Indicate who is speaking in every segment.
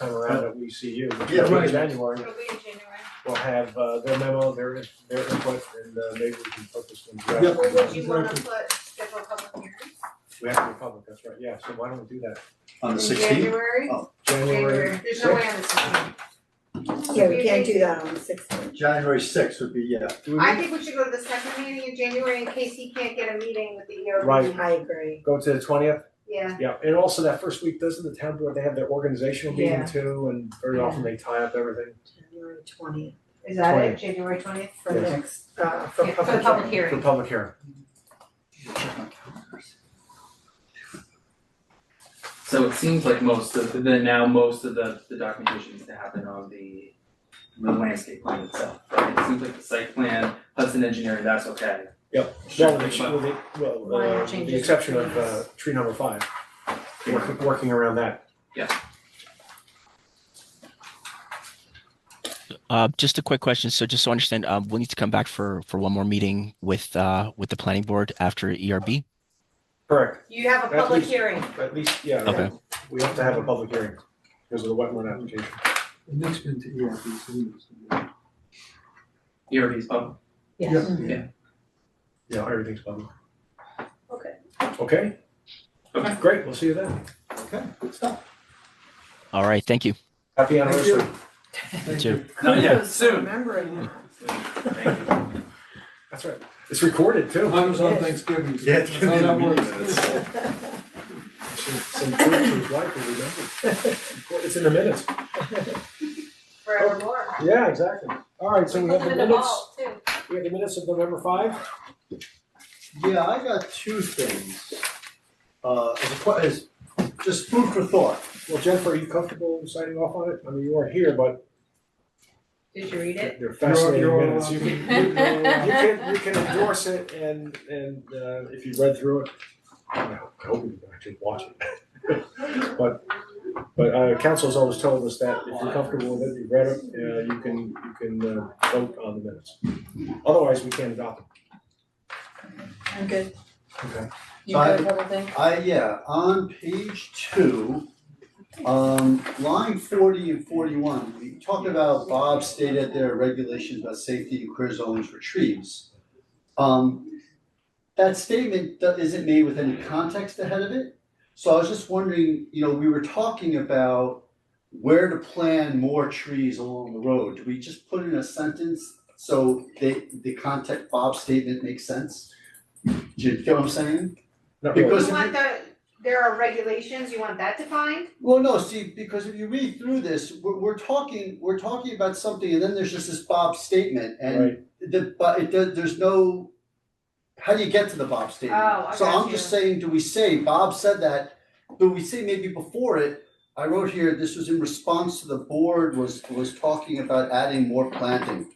Speaker 1: time around at ECU, which
Speaker 2: Yeah,
Speaker 1: is in
Speaker 2: right.
Speaker 1: January,
Speaker 3: It'll be in January.
Speaker 1: we'll have uh their memo, their their input, and uh maybe we can put this in draft.
Speaker 2: Yep.
Speaker 3: Or would you wanna
Speaker 2: Exactly.
Speaker 3: put, schedule a public hearing?
Speaker 1: We have to be public, that's right, yeah, so why don't we do that,
Speaker 2: on the
Speaker 3: In
Speaker 2: sixteenth?
Speaker 3: January?
Speaker 1: January,
Speaker 3: January, there's no way on the sixteenth.
Speaker 4: Yeah, we can't do that on the sixteenth.
Speaker 2: January sixth would be, yeah.
Speaker 3: I think we should go to the second meeting in January in case he can't get a meeting with the ERB.
Speaker 1: Right.
Speaker 4: I agree.
Speaker 1: go to the twentieth,
Speaker 3: Yeah,
Speaker 1: yeah, and also that first week, doesn't the town board, they have their organizational meeting
Speaker 4: Yeah.
Speaker 1: too, and very often they tie up everything
Speaker 4: January twentieth
Speaker 3: is that it, January twentieth?
Speaker 4: for
Speaker 1: Yes.
Speaker 4: next, uh, for
Speaker 3: Yeah,
Speaker 4: public.
Speaker 3: for the public
Speaker 1: for
Speaker 3: hearing.
Speaker 1: public hearing.
Speaker 5: So it seems like most of the, now most of the, the documentation needs to happen on the, the landscape plan itself, right? It seems like the site plan, Hudson Engineering, that's okay.
Speaker 1: Well, with the, with the, well,
Speaker 4: Minor
Speaker 1: uh, with
Speaker 4: changes
Speaker 1: the
Speaker 4: to
Speaker 1: exception of
Speaker 4: trees.
Speaker 1: uh tree number five,
Speaker 5: Yeah.
Speaker 1: working working around that.
Speaker 6: Uh, just a quick question. So just so I understand, um, we'll need to come back for, for one more meeting with, uh, with the planning board after E ERB.
Speaker 1: Correct,
Speaker 3: You have a
Speaker 1: That's
Speaker 3: public
Speaker 1: easy.
Speaker 3: hearing.
Speaker 1: at least, yeah,
Speaker 6: Okay.
Speaker 1: we have to have a public hearing because of the wetland application.
Speaker 2: Next been to ERB, E so we must-
Speaker 5: ERB's public,
Speaker 2: Yeah.
Speaker 1: Yeah, everything's public.
Speaker 3: Okay.
Speaker 1: Okay?
Speaker 5: Okay.
Speaker 1: Great, we'll see you then.
Speaker 2: Okay, good stuff.
Speaker 6: All right. Thank you.
Speaker 1: Happy
Speaker 2: Thank
Speaker 1: anniversary.
Speaker 2: you. Thank
Speaker 6: you.
Speaker 2: you.
Speaker 5: not yet,
Speaker 4: Kudos for
Speaker 5: soon.
Speaker 4: remembering that.
Speaker 5: Thank you.
Speaker 1: That's right. It's recorded too.
Speaker 7: I was on Thanksgiving.
Speaker 2: Yeah, it's gonna be
Speaker 7: How that
Speaker 2: in the
Speaker 7: works.
Speaker 2: minutes.
Speaker 1: Some some proof to his wife will remember. It's in the minutes.
Speaker 3: Forevermore.
Speaker 1: Yeah, exactly. All right, so we have
Speaker 3: Put
Speaker 1: the
Speaker 3: them in the
Speaker 1: minutes,
Speaker 3: vault, too.
Speaker 1: we have the minutes of November five.
Speaker 2: Yeah, I got two things. Uh, as a, que- as, just food for thought.
Speaker 1: Well, Jennifer, are you comfortable signing off on it? I mean, you are here, but
Speaker 3: Did you read it?
Speaker 1: They're
Speaker 7: You're-
Speaker 1: fascinating
Speaker 7: you're-
Speaker 1: minutes. You can, you
Speaker 7: you're-
Speaker 1: can, you can endorse it and, and, uh, if you read through it, I don't know, I hope you actually watch it. But, but, uh, council's always told us that if you're comfortable with it, you've read it, uh, you can, you can, uh, vote on the minutes. Otherwise, we can't adopt
Speaker 4: I'm good.
Speaker 1: them. Okay.
Speaker 4: You good with everything?
Speaker 2: I, Uh, yeah, on page two, um, line forty and forty-one, we talked about Bob stated there are regulations about safety in clear zones for trees. Um, that statement do- isn't made with any context ahead of it, so I was just wondering, you know, we were talking about where to plant more trees along the road, do we just put in a sentence so the, the context Bob's statement makes sense? Do you get what I'm saying?
Speaker 1: Not really.
Speaker 2: Because-
Speaker 3: You want the, there are regulations, you want that defined?
Speaker 2: Well, no, see, because if you read through this, we're, we're talking, we're talking about something, and then there's just this Bob statement, and
Speaker 1: Right.
Speaker 2: the, but it, does- there's no, how do you get to the Bob statement?
Speaker 3: Oh, I
Speaker 2: So
Speaker 3: got
Speaker 2: I'm just saying, do we say, Bob said that, do we say maybe before it, I wrote here, this was in response to the board was, was talking about adding more planting.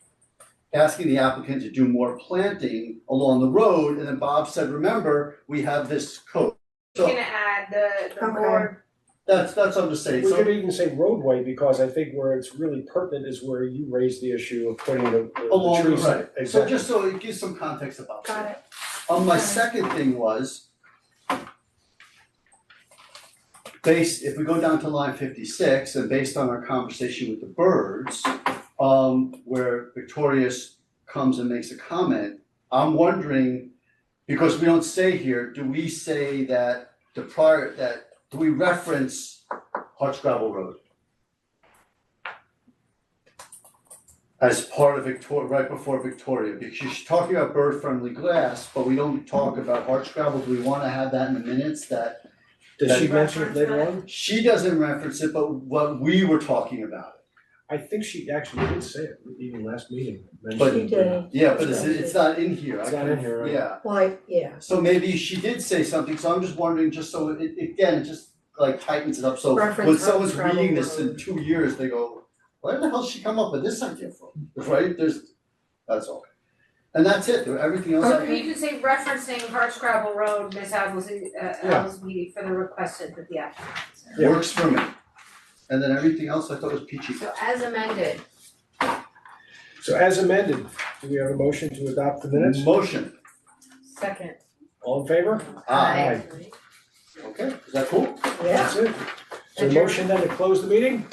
Speaker 2: Asking the applicant to do more planting along the road, and then Bob said, remember, we have this code.
Speaker 3: You're
Speaker 2: So
Speaker 3: gonna add the, the
Speaker 4: Okay.
Speaker 3: board,
Speaker 2: that's, that's what I'm just saying,
Speaker 1: We
Speaker 2: so.
Speaker 1: could even say roadway, because I think where it's really pertinent is where you raised the issue of putting the, the- the
Speaker 2: Along the
Speaker 1: trees.
Speaker 2: right, so
Speaker 1: Exactly.
Speaker 2: just so it gives some context about
Speaker 4: Got
Speaker 2: it.
Speaker 4: it.
Speaker 2: Um, my
Speaker 4: Got it.
Speaker 2: second thing was based, if we go down to line fifty-six, and based on our conversation with the birds, um, where Victorious comes and makes a comment, I'm wondering, because we don't say here, do we say that the prior, that, do we reference Hutch Gravel Road? as part of Victoria, right before Victoria, because she's talking about bird friendly glass, but we don't talk about arch gravel, do we wanna have that in the minutes that
Speaker 1: Did she mention it later on?
Speaker 2: she doesn't reference it, but what we were talking about it.
Speaker 1: I think she actually did say it, even last meeting.
Speaker 2: But-
Speaker 4: She did,
Speaker 2: Yeah, but it's it's not in here, I
Speaker 1: It's not in here, right?
Speaker 2: yeah,
Speaker 4: like, yeah,
Speaker 2: so maybe she did say something, so I'm just wondering, just so it it- again, it just like tightens it up, so
Speaker 4: Reference
Speaker 2: when someone's
Speaker 4: Arch Gravel
Speaker 2: reading this in
Speaker 4: Road.
Speaker 2: two years, they go, where the hell did she come up with this idea from, right, there's, that's all. And that's it, everything else I
Speaker 3: So you can say referencing Harsh Gravel Road, Ms. Alves, uh,
Speaker 1: Yeah.
Speaker 3: Alves meeting for the requested with the applicant.
Speaker 1: Yeah.
Speaker 2: works for me. And then everything else I thought was peachy.
Speaker 3: So as amended,
Speaker 1: So as amended, do we have a motion to adopt the minutes?
Speaker 2: Motion,
Speaker 3: second.
Speaker 1: All in favor?
Speaker 3: Ah,
Speaker 2: aye,
Speaker 1: Aye.
Speaker 2: okay, is that cool?
Speaker 4: yeah.
Speaker 1: That's it. So motion then to close the meeting?